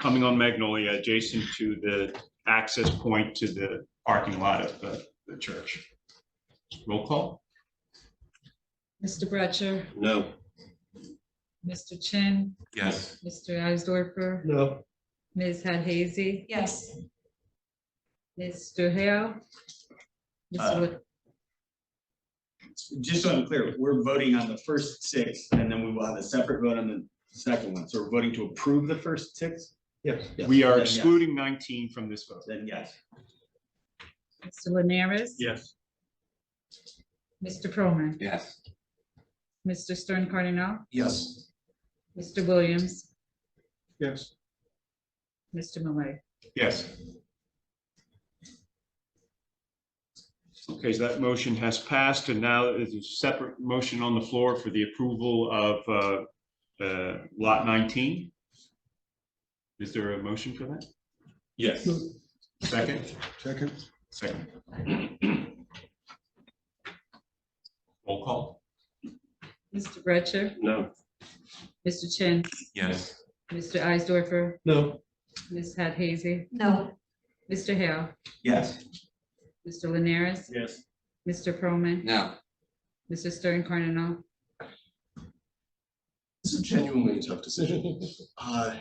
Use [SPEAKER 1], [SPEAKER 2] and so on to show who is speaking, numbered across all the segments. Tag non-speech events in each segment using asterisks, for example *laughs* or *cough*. [SPEAKER 1] coming on Magnolia, adjacent to the access point to the parking lot of the, the church. Roll call?
[SPEAKER 2] Mr. Bretcher,
[SPEAKER 3] No.
[SPEAKER 2] Mr. Chin,
[SPEAKER 3] Yes.
[SPEAKER 2] Mr. Eisdorfer,
[SPEAKER 3] No.
[SPEAKER 2] Ms. Hadhazy,
[SPEAKER 4] Yes,
[SPEAKER 2] Mr. Hale. Mr.
[SPEAKER 5] Uh,
[SPEAKER 2] Wood-
[SPEAKER 5] Just so I'm clear, we're voting on the first six, and then we will have a separate vote on the second one. So we're voting to approve the first six?
[SPEAKER 3] Yes.
[SPEAKER 1] We
[SPEAKER 5] Then
[SPEAKER 1] are
[SPEAKER 5] yes.
[SPEAKER 1] excluding nineteen from this vote.
[SPEAKER 5] Then yes.
[SPEAKER 2] Mr. Linares.
[SPEAKER 1] Yes.
[SPEAKER 2] Mr. Proman,
[SPEAKER 3] Yes.
[SPEAKER 2] Mr. Stern Cardinal,
[SPEAKER 3] Yes.
[SPEAKER 2] Mr. Williams,
[SPEAKER 3] Yes.
[SPEAKER 2] Mr. Malay.
[SPEAKER 1] Yes. Okay, so that motion has passed, and now there's a separate motion on the floor for the approval of uh, uh, Lot 19. Is there a motion for that?
[SPEAKER 3] Yes.
[SPEAKER 1] Second?
[SPEAKER 3] Second.
[SPEAKER 1] Second. Roll call?
[SPEAKER 2] Mr. Bretcher,
[SPEAKER 3] No.
[SPEAKER 2] Mr. Chin,
[SPEAKER 3] Yes.
[SPEAKER 2] Mr. Eisdorfer,
[SPEAKER 3] No.
[SPEAKER 2] Ms. Hadhazy,
[SPEAKER 4] no,
[SPEAKER 2] Mr. Hale,
[SPEAKER 5] Yes.
[SPEAKER 2] Mr. Linares,
[SPEAKER 5] Yes.
[SPEAKER 2] Mr. Proman,
[SPEAKER 3] No.
[SPEAKER 2] Mr. Stern Cardinal,
[SPEAKER 6] This is genuinely a tough decision. Uh,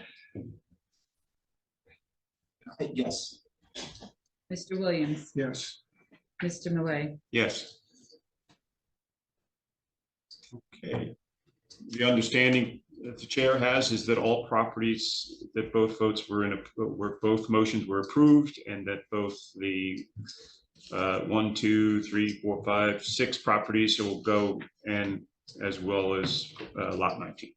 [SPEAKER 6] I- Yes.
[SPEAKER 2] Mr. Williams,
[SPEAKER 6] Yes.
[SPEAKER 2] Mr. Malay.
[SPEAKER 1] Yes. Okay. The understanding that the chair has is that all properties, that both votes were in, a- were, both motions were approved, and that both the uh, one, two, three, four, five, six properties will go, and as well as uh, lot 19.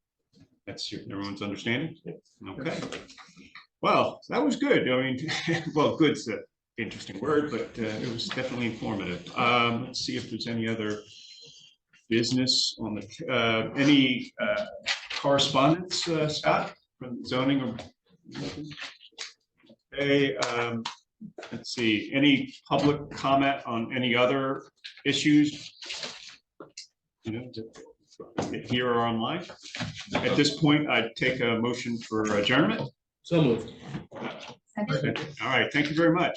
[SPEAKER 1] That's your- everyone's understanding? Okay. Well, that was good. I mean, *laughs* well, good's a interesting word, but uh, it was definitely informative. Um, Let's see if there's any other business on the, uh, any uh, correspondence, uh, Scott, from zoning or? Hey, um, let's see, any public comment on any other issues? You know, that- Here or online? At this point, I'd take a motion for adjournment.
[SPEAKER 3] So moved.
[SPEAKER 4] second.
[SPEAKER 1] All right, thank you very much.